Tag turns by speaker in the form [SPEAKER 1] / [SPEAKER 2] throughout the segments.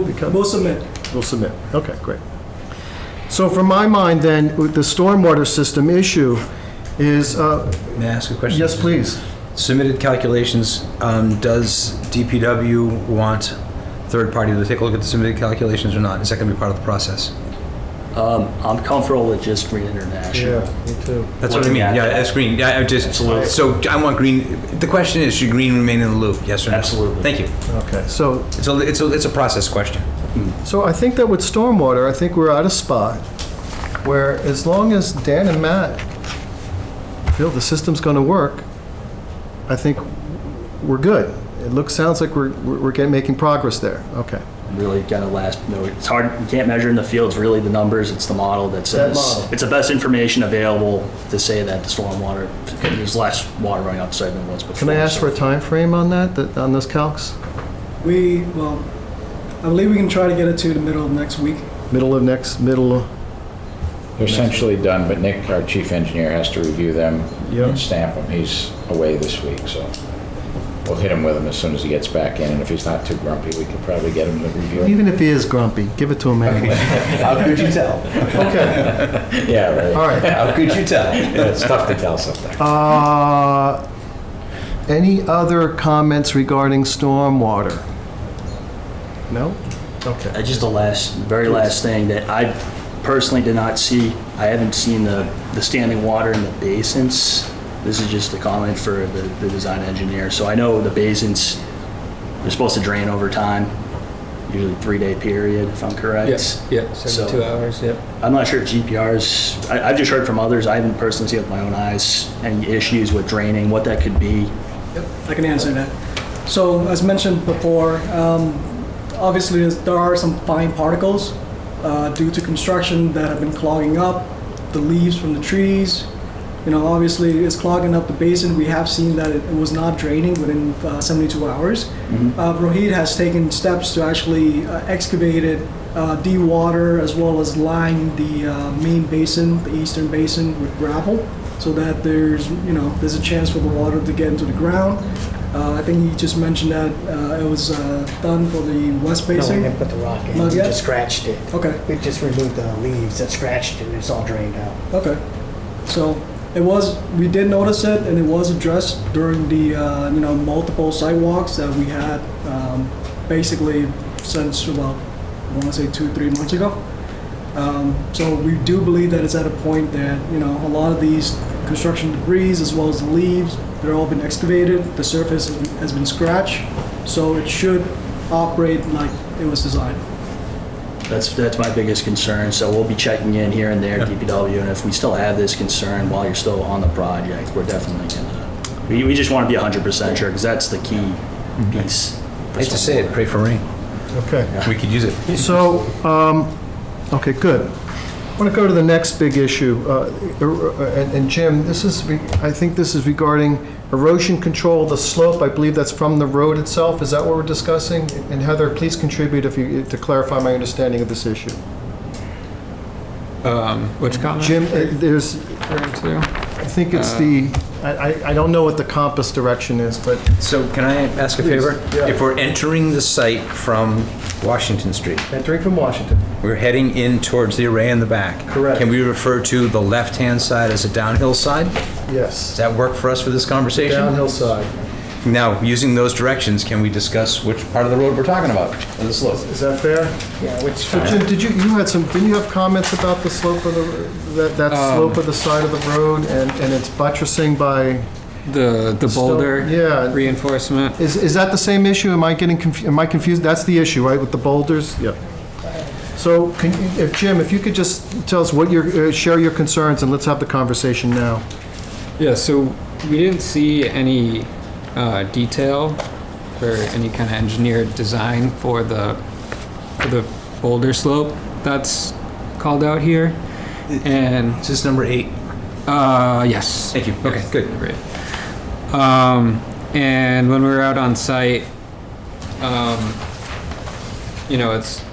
[SPEAKER 1] We'll submit.
[SPEAKER 2] We'll submit. Okay, great. So from my mind then, with the stormwater system issue is, uh,
[SPEAKER 3] May I ask a question?
[SPEAKER 2] yes, please.
[SPEAKER 3] Submitted calculations, um, does DPW want third party to take a look at the submitted calculations or not? Is that going to be part of the process?
[SPEAKER 4] Um, I'm comfortable with just Green International.
[SPEAKER 2] me too.
[SPEAKER 3] That's what I mean,
[SPEAKER 4] Yeah.
[SPEAKER 3] yeah, that's green, yeah, I just, so I want green, the question is, should green remain in the loop, yes or no?
[SPEAKER 4] Absolutely.
[SPEAKER 3] Thank you.
[SPEAKER 2] Okay, so,
[SPEAKER 3] It's a, it's a, it's a process question.
[SPEAKER 2] so I think that with stormwater, I think we're at a spot where as long as Dan and Matt feel the system's gonna work, I think we're good. It looks, sounds like we're, we're we're getting, making progress there. Okay.
[SPEAKER 4] Really got to last, no, it's hard, you can't measure in the fields really the numbers, it's the model that
[SPEAKER 2] model.
[SPEAKER 4] says, it's the best information available to say that the stormwater, there's less water running outside than there was before.
[SPEAKER 2] Can I ask
[SPEAKER 4] so-
[SPEAKER 2] for a time frame on that, that- on those calcs?
[SPEAKER 1] We, well, I believe we can try to get it to the middle of next week.
[SPEAKER 2] Middle of next, middle of?
[SPEAKER 5] They're essentially done, but Nick, our chief engineer, has to review them
[SPEAKER 2] Yep.
[SPEAKER 5] and stamp them. He's away this week, so we'll hit him with them as soon as he gets back in, and if he's not too grumpy, we could probably get him to review it.
[SPEAKER 2] Even if he is grumpy, give it to him anyway.
[SPEAKER 5] How could you tell?
[SPEAKER 2] Okay,
[SPEAKER 5] Yeah, right.
[SPEAKER 2] all right.
[SPEAKER 5] How could you tell? Yeah, It's tough to tell sometimes.
[SPEAKER 2] Uh, Any other comments regarding stormwater? No? Okay.
[SPEAKER 4] Uh, Just the last, very last thing that I personally did not see, I haven't seen the, the standing water in the basins. This is just a comment for the, the design engineer. So I know the basins, they're supposed to drain over time, usually three-day period, if I'm correct.
[SPEAKER 6] Yes, yeah,
[SPEAKER 4] So-
[SPEAKER 6] 72 hours, yep.
[SPEAKER 4] I'm not sure if GPRs, I, I've just heard from others, I haven't personally seen with my own eyes, any issues with draining, what that could be.
[SPEAKER 1] I can answer that. So as mentioned before, um, obviously there's- there are some fine particles uh, due to construction that have been clogging up the leaves from the trees. You know, obviously it's clogging up the basin. We have seen that it, it was not draining within uh, 72 hours.
[SPEAKER 7] Mm-hmm.
[SPEAKER 1] Uh, Rohit has taken steps to actually uh, excavate it, uh, de-water, as well as line the uh, main basin, the eastern basin, with gravel, so that there's you know there's a chance for the water to get into the ground. Uh, I think he just mentioned that uh, it was uh, done for the west
[SPEAKER 7] No, we
[SPEAKER 1] basin.
[SPEAKER 7] didn't put the rock in.
[SPEAKER 1] Not
[SPEAKER 7] We
[SPEAKER 1] yet?
[SPEAKER 7] just scratched it.
[SPEAKER 1] Okay.
[SPEAKER 7] We just removed the leaves that scratched it, and it's all drained out.
[SPEAKER 1] Okay. So it was, we did notice it and it was addressed during the, uh, you know, multiple sidewalks that we had um, basically since about, I want to say two, three months ago. Um, So we do believe that it's at a point that, you know, a lot of these construction debris as well as the leaves, they're all been excavated, the surface has been- has been scratched, so it should operate like it was designed.
[SPEAKER 4] That's, that's my biggest concern, so we'll be checking in here and there, DPW, and if we still have this concern while you're still on the project, we're definitely gonna, we, we just wanna be hundred percent sure, because that's the key piece.
[SPEAKER 3] I hate to say it, pray for rain.
[SPEAKER 2] Okay.
[SPEAKER 3] We could use it.
[SPEAKER 2] So, um, okay, good. I want to go to the next big issue. uh, er- And and Jim, this is, re- I think this is regarding erosion control, the slope. I believe that's from the road itself. Is that what we're discussing? And Heather, please contribute if you, to clarify my understanding of this issue.
[SPEAKER 6] Which comment?
[SPEAKER 2] Jim, uh, there's,
[SPEAKER 6] Referring to?
[SPEAKER 2] I think it's the, I, I- I don't know what the compass direction is, but
[SPEAKER 3] So can I ask a favor?
[SPEAKER 2] yeah.
[SPEAKER 3] If we're entering the site from Washington Street,
[SPEAKER 2] entering from Washington.
[SPEAKER 3] We're heading in towards the array in the back.
[SPEAKER 2] Correct.
[SPEAKER 3] Can we refer to the left-hand side as a downhill side? Does
[SPEAKER 2] Yes,
[SPEAKER 3] that work for us for this conversation?
[SPEAKER 2] downhill side.
[SPEAKER 3] Now, using those directions, can we discuss which part of the road we're talking about, or the slope?
[SPEAKER 2] Is that fair?
[SPEAKER 7] Yeah, which
[SPEAKER 2] So Jim, did you, you had some, didn't you have comments about the slope of the, that, that slope of the side of the road and, and it's buttressing by,
[SPEAKER 6] The, the
[SPEAKER 2] Still-
[SPEAKER 6] boulder
[SPEAKER 2] yeah.
[SPEAKER 6] reinforcement.
[SPEAKER 2] is, is that the same issue? Am I getting confused, am I confused? That's the issue, right, with the boulders? Yep. So can, you- if, Jim, if you could just tell us what your, uh, share your concerns and let's have the conversation now.
[SPEAKER 6] Yeah, so we didn't see any uh, detail or any kind of engineered design for the, for the boulder slope that's called out here. And
[SPEAKER 3] This is number eight.
[SPEAKER 6] Uh, yes.
[SPEAKER 3] Thank you. Okay, good.
[SPEAKER 6] Great. Um, and when we were out on site, um, you know, it's,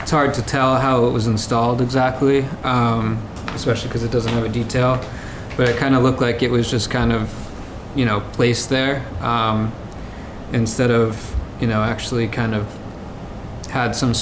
[SPEAKER 6] it's hard to tell how it was installed exactly, um, especially because it doesn't have a detail. But it kind of looked like it was just kind of, you know, placed there um, instead of, you know, actually kind of had some sort